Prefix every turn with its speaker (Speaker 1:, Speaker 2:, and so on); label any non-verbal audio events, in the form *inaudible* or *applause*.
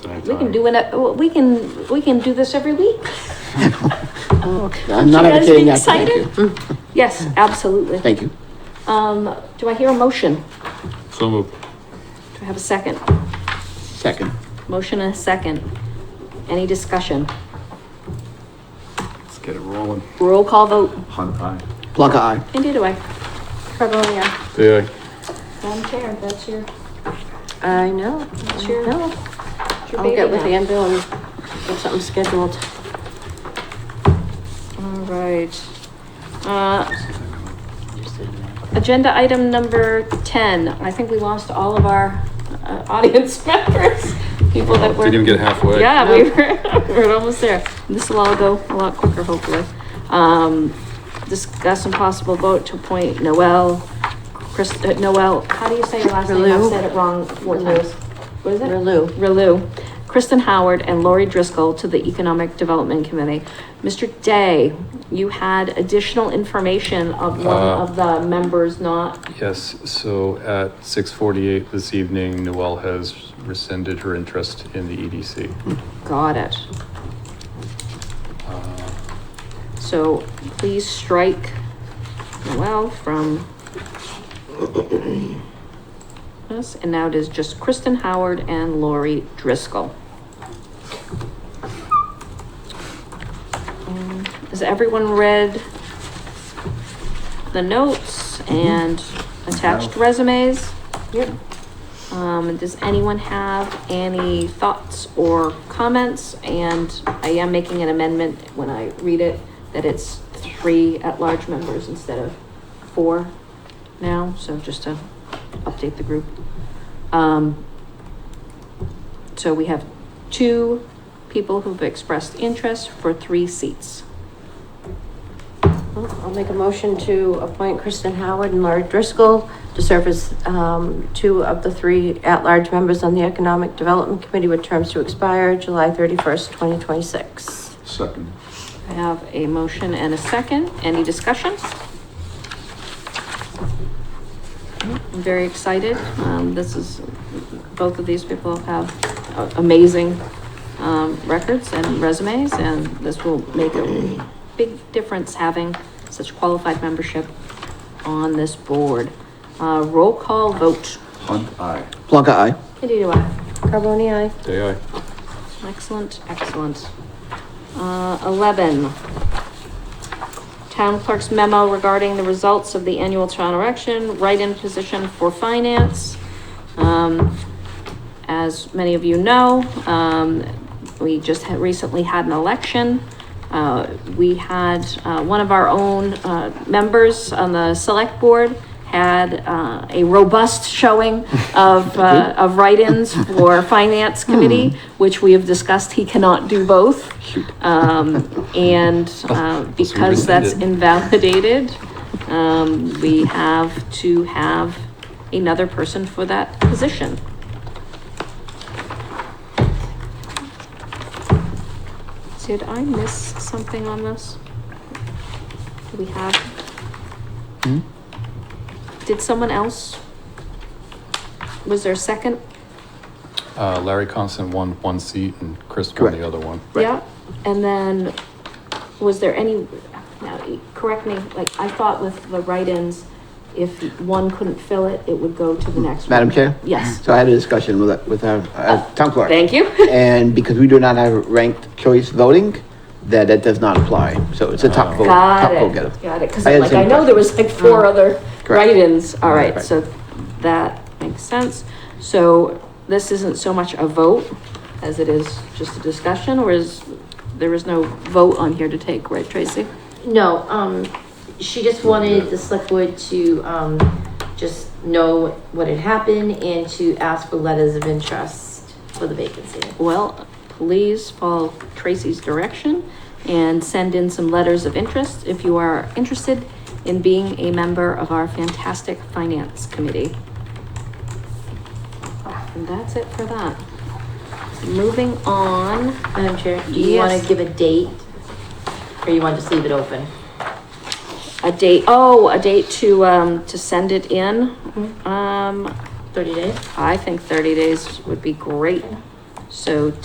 Speaker 1: We can do it, uh, we can, we can do this every
Speaker 2: *laughs*
Speaker 1: week.
Speaker 2: I'm not
Speaker 1: You guys be
Speaker 2: entertaining that. Thank you.
Speaker 1: excited? Yes, absolutely.
Speaker 2: Thank you.
Speaker 1: Um, do I hear a motion?
Speaker 3: So moved.
Speaker 1: Do I have a second?
Speaker 2: Second.
Speaker 1: Motion and a second. Any discussion?
Speaker 3: Let's get it rolling.
Speaker 1: Roll call vote.
Speaker 4: Hunt eye.
Speaker 2: Plug eye.
Speaker 1: Indeed, do I. Beverly, aye.
Speaker 3: Day
Speaker 1: Madam Chair, that's your,
Speaker 5: I know.
Speaker 1: that's your,
Speaker 5: No,
Speaker 1: that's your
Speaker 5: I'll
Speaker 1: baby
Speaker 5: get with
Speaker 1: now.
Speaker 5: Andrew and get something scheduled.
Speaker 1: All right. Uh, agenda item number ten. I think we lost all of our uh, audience *laughs* members, people that were.
Speaker 3: Didn't even get halfway.
Speaker 1: Yeah, we were, *laughs* we were almost there. This will all go a lot quicker, hopefully. Um, discuss and possible vote to appoint Noel, Chris, uh, Noel, how do you say your last name? I've
Speaker 5: Relu.
Speaker 1: said it wrong four
Speaker 5: Relu.
Speaker 1: times. What is it?
Speaker 5: Relu.
Speaker 1: Relu, Kristen Howard and Lori Driscoll to the Economic Development Committee. Mr. Day, you had additional information of one
Speaker 3: Uh,
Speaker 1: of the members not,
Speaker 3: Yes, so at six forty-eight this evening, Noel has rescinded her interest in the E EDC.
Speaker 1: got it.
Speaker 3: Uh,
Speaker 1: So please strike Noel from this, and now it is just Kristen Howard and Lori Driscoll. Um, Has everyone read the notes and attached resumes?
Speaker 5: Yep.
Speaker 1: Um, does anyone have any thoughts or comments? And I am making an amendment when I read it, that it's three at-large members instead of four now, so just to update the group. Um, so we have two people who've expressed interest for three seats.
Speaker 5: I'll make a motion to appoint Kristen Howard and Laurie Driscoll to serve as, um, two of the three at-large members on the Economic Development Committee with terms to expire July thirty-first, twenty twenty-six.
Speaker 4: Second.
Speaker 1: I have a motion and a second. Any discussion? I'm very excited. Um, this is, both of these people have a- amazing, um, records and resumes, and this will make a big difference having such qualified membership on this board. Uh, roll call vote.
Speaker 4: Hunt eye.
Speaker 2: Plug eye.
Speaker 1: Kitty, do I?
Speaker 5: Carboni, aye.
Speaker 3: Day
Speaker 1: Excellent, excellent. Uh, eleven. Town clerk's memo regarding the results of the annual town election, write-in position for finance. Um, as many of you know, um, we just had recently had an election. Uh, we had, uh, one of our own, uh, members on the select board had, uh, a robust showing of, uh, of write-ins for finance committee, which we have discussed, he cannot do both. Um, and, uh, because that's
Speaker 3: rescinded.
Speaker 1: invalidated, um, we have to have another person for that position. Did I miss something on this? Do we have? Did someone else? Was there a second?
Speaker 3: Uh, Larry Constant won one seat and Chris won the
Speaker 2: Correct.
Speaker 3: other one.
Speaker 1: Yeah, and then, was there any, now, e- correct me, like, I thought with the write-ins, if one couldn't fill it, it would go to the next one.
Speaker 2: Madam Chair? Mm-hmm.
Speaker 1: Yes.
Speaker 2: So I had a discussion with, with our, our town clerk.
Speaker 1: Oh, Thank you. *laughs*
Speaker 2: And because we do not have ranked choice voting, that, that does not apply. So it's a top vote.
Speaker 1: Oh. Got
Speaker 2: top vote getter.
Speaker 1: it, got it, because
Speaker 2: I had the
Speaker 1: like,
Speaker 2: same
Speaker 1: I know there
Speaker 2: question.
Speaker 1: was like four other
Speaker 2: Correct.
Speaker 1: write-ins, all right,
Speaker 2: Right.
Speaker 1: so that makes sense. So this isn't so much a vote as it is just a discussion, or is, there is no vote on here to take, right, Tracy?
Speaker 6: No, um, she just wanted the select board to, um, just know what had happened and to ask for letters of interest for the vacancy.
Speaker 1: Well, please follow Tracy's direction and send in some letters of interest if you are interested in being a member of our fantastic finance committee. And that's it for that. Moving on,
Speaker 6: Madam Chair, do you wanna
Speaker 1: Yes.
Speaker 6: give a date? Or you wanna just leave it open?
Speaker 1: a date, oh, a date to, um, to send it in. Um,
Speaker 6: Thirty days?
Speaker 1: I think thirty days would be great. So